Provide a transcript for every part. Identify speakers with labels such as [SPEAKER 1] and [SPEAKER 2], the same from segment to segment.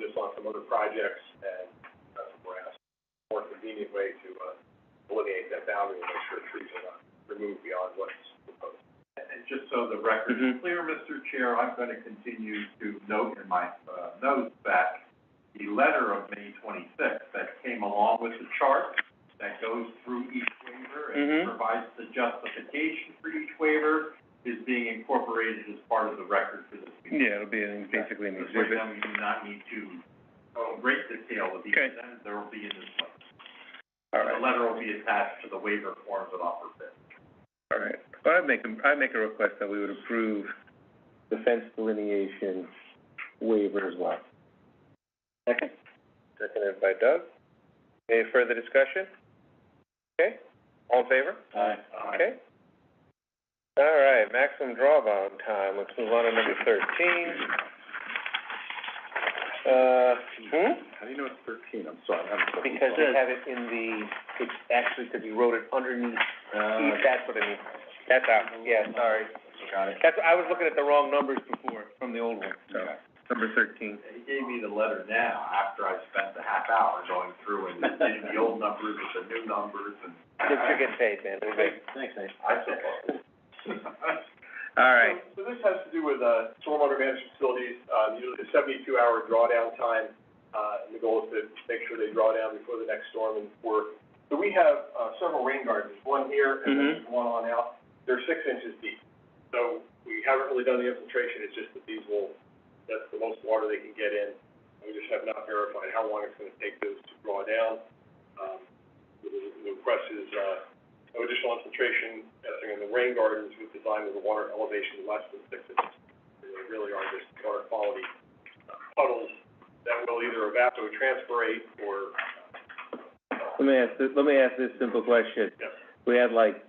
[SPEAKER 1] some other projects, and that's what we're asking. More convenient way to, uh, delineate that boundary and make sure trees are not removed beyond what's proposed.
[SPEAKER 2] And, and just so the record is
[SPEAKER 3] Mhm.
[SPEAKER 2] clear, Mr. Chair, I'm gonna continue to note in my, uh, notes that the letter of May twenty-sixth that came along with the chart that goes through each waiver
[SPEAKER 3] Mhm.
[SPEAKER 2] and provides the justification for each waiver is being incorporated as part of the record for this meeting.
[SPEAKER 3] Yeah, it'll be in, basically an
[SPEAKER 2] This way
[SPEAKER 3] exhibit.
[SPEAKER 2] then we do not need to oh, go in great detail with each
[SPEAKER 3] Okay.
[SPEAKER 2] of them, there will be in this one.
[SPEAKER 3] All
[SPEAKER 2] The
[SPEAKER 3] right,
[SPEAKER 2] letter will be attached to the waiver forms that offer fit.
[SPEAKER 3] all right. Well, I'd make, a- I'd make a request that we would approve the fence delineation waiver as well. Second. Seconded by Doug. Any further discussion? Okay, all in favor?
[SPEAKER 2] Uh,
[SPEAKER 3] Okay. All right, maximum drawdown time, let's move on to number thirteen. Uh, hmm?
[SPEAKER 1] How do you know it's thirteen? I'm sorry, I'm.
[SPEAKER 3] Because we have it in the, it's actually, because you wrote it underneath,
[SPEAKER 2] Uh,
[SPEAKER 3] E, that's what I mean. That's out, yeah, sorry.
[SPEAKER 1] Got it.
[SPEAKER 3] That's, I was looking at the wrong numbers before, from the old one, so. Number thirteen.
[SPEAKER 2] He gave me the letter now, after I spent the half hour going through and getting the old numbers with the new numbers and.
[SPEAKER 3] Thanks for getting paid, man, it'll be.
[SPEAKER 2] Thanks, Nate. I suppose.
[SPEAKER 3] All
[SPEAKER 1] So so this has to do with, uh, stormwater management facilities, uh, usually a seventy-two hour drawdown time, uh, and the goal is to make sure they draw down before the next storm and work. So we have, uh, several rain gardens, one here and then
[SPEAKER 3] Mhm.
[SPEAKER 1] there's one on out, they're six inches deep. So we haven't really done the infiltration, it's just that these will, that's the most water they can get in. We just have not verified how long it's gonna take those to draw down. Um, the, the request is, uh, no additional infiltration testing in the rain gardens with design with a water elevation less than six inches. They really are just water quality uh, puddles that will either evapotranspirate or,
[SPEAKER 3] Let me ask, let me ask this simple question.
[SPEAKER 1] Yes.
[SPEAKER 3] We had like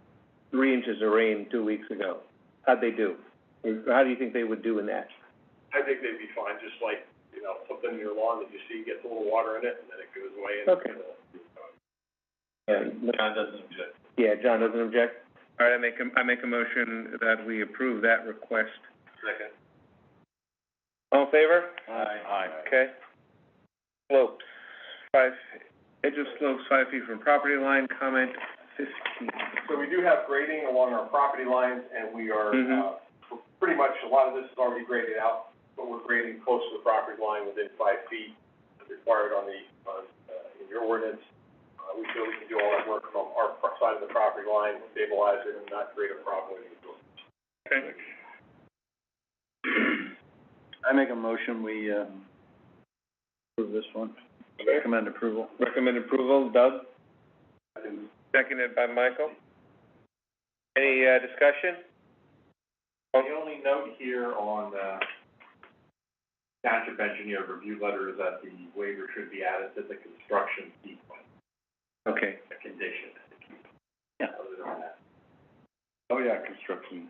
[SPEAKER 3] three inches of rain two weeks ago. How'd they do? How do you think they would do in that?
[SPEAKER 1] I think they'd be fine, just like, you know, something in your lawn that you see gets a little water in it and then it goes away and.
[SPEAKER 3] Okay.
[SPEAKER 2] John doesn't object.
[SPEAKER 3] Yeah, John doesn't object? All right, I make a, I make a motion that we approve that request.
[SPEAKER 2] Second.
[SPEAKER 3] All in favor?
[SPEAKER 2] Aye. Aye.
[SPEAKER 3] Okay. Slopes, five, edge of slopes, five feet from property line, comment fifteen.
[SPEAKER 1] So we do have grading along our property lines, and we are, uh,
[SPEAKER 3] Mhm.
[SPEAKER 1] we're pretty much, a lot of this is already graded out, but we're grading close to the property line within five feet, as required on the, on, uh, in your ordinance. Uh, we feel we can do all that work from our pro- side of the property line, stabilize it, and not create a problem with it.
[SPEAKER 3] Okay.
[SPEAKER 2] I make a motion, we, uh, approve this one, recommend approval.
[SPEAKER 3] Recommend approval, Doug?
[SPEAKER 1] I think
[SPEAKER 3] Seconded by Michael. Any, uh, discussion?
[SPEAKER 2] The only note here on, uh, township engineer review letter is that the waiver should be added to the construction sequence,
[SPEAKER 3] Okay.
[SPEAKER 2] a condition.
[SPEAKER 3] Yeah.
[SPEAKER 2] Other than that.
[SPEAKER 3] Oh, yeah, construction.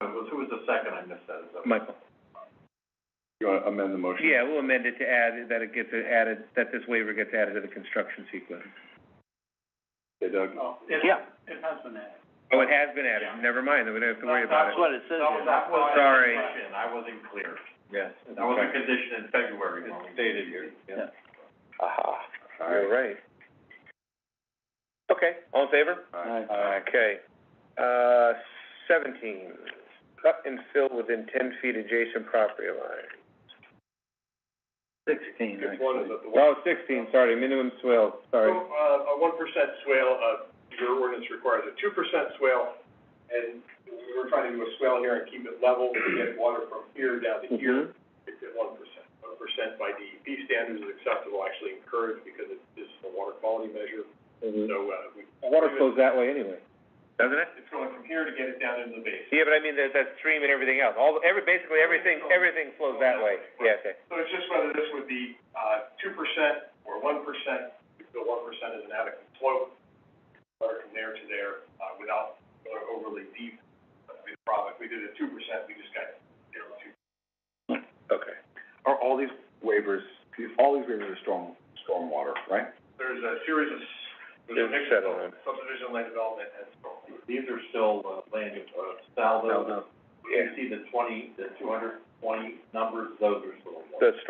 [SPEAKER 2] Uh, was- Who was the second? I missed that. Is that-
[SPEAKER 3] Michael?
[SPEAKER 1] you wanna amend the motion?
[SPEAKER 3] Yeah, we'll amend it to add, that it gets added, that this waiver gets added to the construction sequence.
[SPEAKER 1] Okay, Doug.
[SPEAKER 2] Oh, it-
[SPEAKER 4] Yeah.
[SPEAKER 2] It has been added.
[SPEAKER 3] Oh, it has been added, never mind, then we don't have to worry about it.
[SPEAKER 4] That's what it says
[SPEAKER 2] That was,
[SPEAKER 4] here.
[SPEAKER 2] that was.
[SPEAKER 3] Sorry.
[SPEAKER 2] I wasn't clear.
[SPEAKER 1] Yes.
[SPEAKER 2] That was a condition in February. when we-
[SPEAKER 4] yeah.
[SPEAKER 3] Aha, you're right. Okay, all in favor? Okay, uh, seventeen, cut and fill within ten feet adjacent property line.
[SPEAKER 4] Sixteen,
[SPEAKER 1] Good one is that the.
[SPEAKER 3] Oh, sixteen, sorry, minimum swale,
[SPEAKER 1] So,
[SPEAKER 3] sorry.
[SPEAKER 1] uh, a one percent swale, uh, your ordinance requires a two percent swale, and we were trying to do a swale here and keep it level, to get water from here down to here,
[SPEAKER 3] Mm-hmm.
[SPEAKER 1] it's at one percent. One percent by DEP standards is acceptable, actually encouraged, because it, this is a water quality measure, so, uh, we.
[SPEAKER 3] Mm-hmm. Water flows that way anyway. Doesn't it?
[SPEAKER 1] It's going from here to get it down into the basin.
[SPEAKER 3] Yeah, but I mean, there's that stream and everything else, all, every, basically everything, everything flows that way, yeah, okay.
[SPEAKER 1] So it's just whether this would be, uh, two percent or one percent, if the one percent is an adequate slope, or from there to there, uh, without going overly deep, that'd be the problem. If we did a two percent, we just got zero two.
[SPEAKER 3] Okay.
[SPEAKER 5] Are all these waivers, all these waivers are storm, stormwater, right?
[SPEAKER 1] There's a series of, s- there's a mix
[SPEAKER 3] There's
[SPEAKER 1] of
[SPEAKER 3] settlement.
[SPEAKER 1] subdivision, land development, and stormwater.
[SPEAKER 2] These are still, uh, land, use, uh, salvo.
[SPEAKER 3] Yeah.
[SPEAKER 2] You see the twenty, the two hundred twenty numbers, those are still. in there.
[SPEAKER 3] The